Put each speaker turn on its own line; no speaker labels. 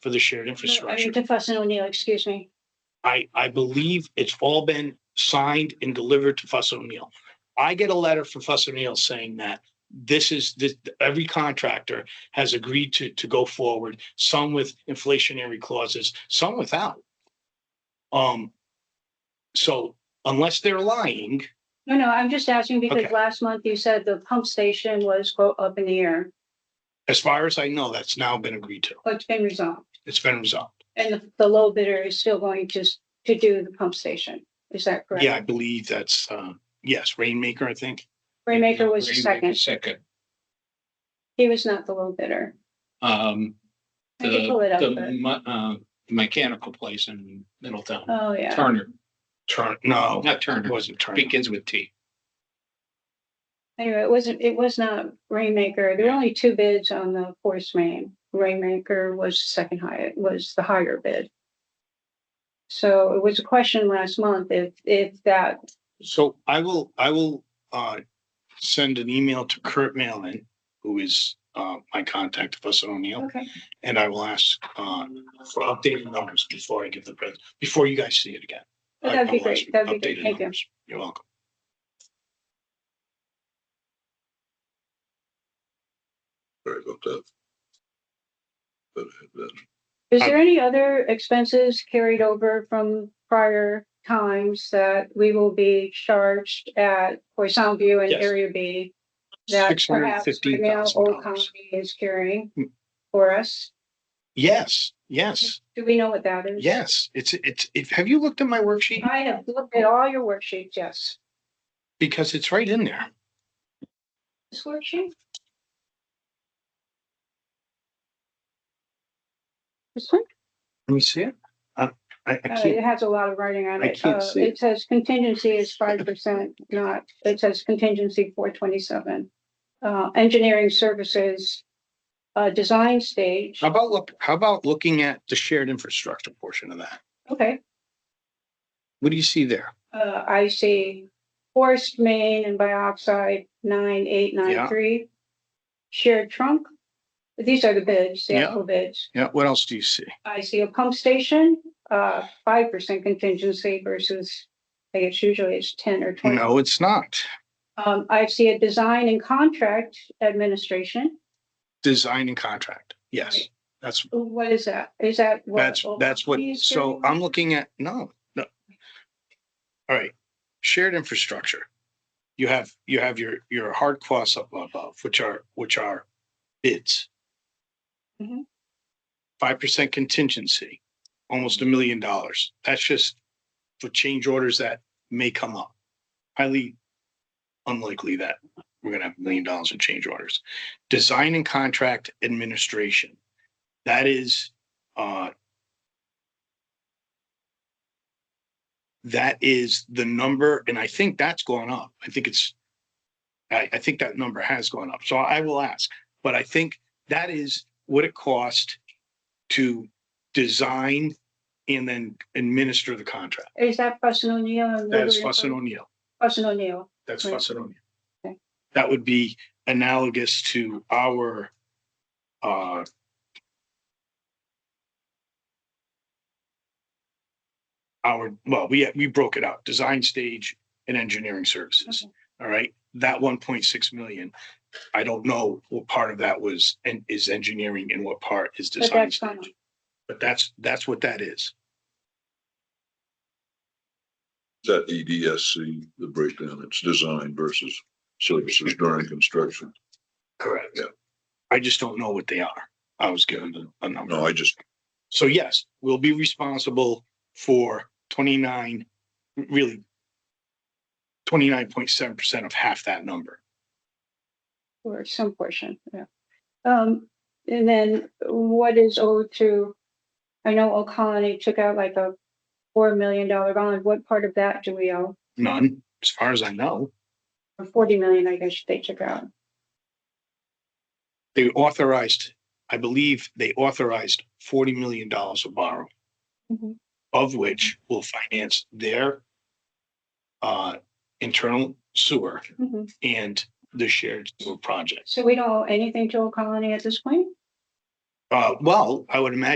for the shared
I
infrastructure.
mean, to Fuss and O'Neill, excuse me.
I, I believe it's all been signed and delivered to Fuss O'Neill. I get a letter from Fuss O'Neill saying that this is, this, every contractor has agreed to, to go forward, some with inflationary clauses, some without. Um, so unless they're lying,
No, no, I'm just asking because
Okay.
last month you said the pump station was quote up in the air,
as far as I know, that's now been agreed to.
but it's been resolved.
It's been resolved.
And the- the low bidder is still going to, s- to do the pump station. Is that correct?
Yeah, I believe that's, um, yes, Rainmaker, I think.
Raymaker was the second.
Rainmaker Second.
He was not the low bidder.
Um,
I could pull it
the,
up,
the,
but-
me- uh,
um,
mechanical place in Middletown,
oh, yeah.
Turner,
Turn, no,
not
it
Turner,
wasn't Turner.
begins with T.
Anyway, it wasn't, it was not Rainmaker. There were only two bids on the force main. Rainmaker was the second high, was the higher bid. So it was a question last month if, if that,
So I will, I will, uh, send an email to Kurt Malin, who is, uh, my contact, Fuss O'Neill,
okay,
and I will ask, uh, for updated numbers before I give the pres, before you guys see it again. I-
that'd
I
be
will ask
great.
for
That'd be great.
updated
Thank you.
numbers. You're welcome.
Sorry about that. But that,
Is
Um,
there any other expenses carried over from prior times that we will be charged at Poisson View and
Yes.
Area B? That
Six hundred and
perhaps
fifteen
now
thousand
Old
dollars.
Colony is carrying
Hmm.
for us?
Yes, yes,
Do we know what that is?
yes. It's, it's, if, have you looked at my worksheet?
I have looked at all your worksheets, yes.
Because it's right in there.
This worksheet? This one?
Let me see it. Uh, I, I
Uh,
can't,
It has a lot of writing on
I
it.
can't
Uh,
see
It says contingency is five percent, not, it says contingency four twenty-seven. Uh, engineering services, uh, design stage,
how about look, how about looking at the shared infrastructure portion of that?
okay,
What do you see there?
uh, I see forest main and bioxide nine, eight, nine,
Yeah.
three. Shared trunk, these are the bids, the
Yeah.
actual bids.
Yeah, what else do you see?
I see a pump station, uh, five percent contingency versus, I guess usually it's ten or twenty.
No, it's not.
Um, I see a design and contract administration.
Design and contract, yes, that's,
What is that? Is that? what
that's,
Old
that's what,
Colony is
so
doing?
I'm looking at, no, no. All right, shared infrastructure. You have, you have your, your hard costs up above, which are, which are bids.
Mhm.
Five percent contingency, almost a million dollars. That's just for change orders that may come up. Highly unlikely that we're gonna have a million dollars in change orders. Design and contract administration. That is, uh, that is the number, and I think that's gone up. I think it's, I, I think that number has gone up. So I will ask, but I think that is what it cost to design and then administer the contract.
Is that Fuss and O'Neill? and
That is
Woodward
Fuss and O'Neill.
Fuss and O'Neill.
That's
Right.
Fusseronia.
Okay.
That would be analogous to our, uh, our, well, we, we broke it out, design stage and engineering services.
Okay.
All right, that one point six million, I don't know what part of that was, and is engineering and what part is
But
design
that's fine.
stage. But that's, that's what that is.
is that E EDSC, the breakdown, it's design versus services during construction.
Correct.
Yeah.
I just don't know what they are. I was given a a number.
No, I just,
So yes, we'll be responsible for twenty-nine, really twenty-nine point seven percent of half that number.
Or some portion, yeah. Um, and then what is owed to, I know Old Colony took out like a four million dollar bond. What part of that do we owe?
None, as far as I know.
Or forty million, I guess they took out.
They authorized, I believe they authorized forty million dollars of borrow,
Mhm.
of which will finance their uh, internal sewer
Mhm.
and the shared sewer project.
So we don't owe anything to Old Colony at this point?
Uh, well, I would imagine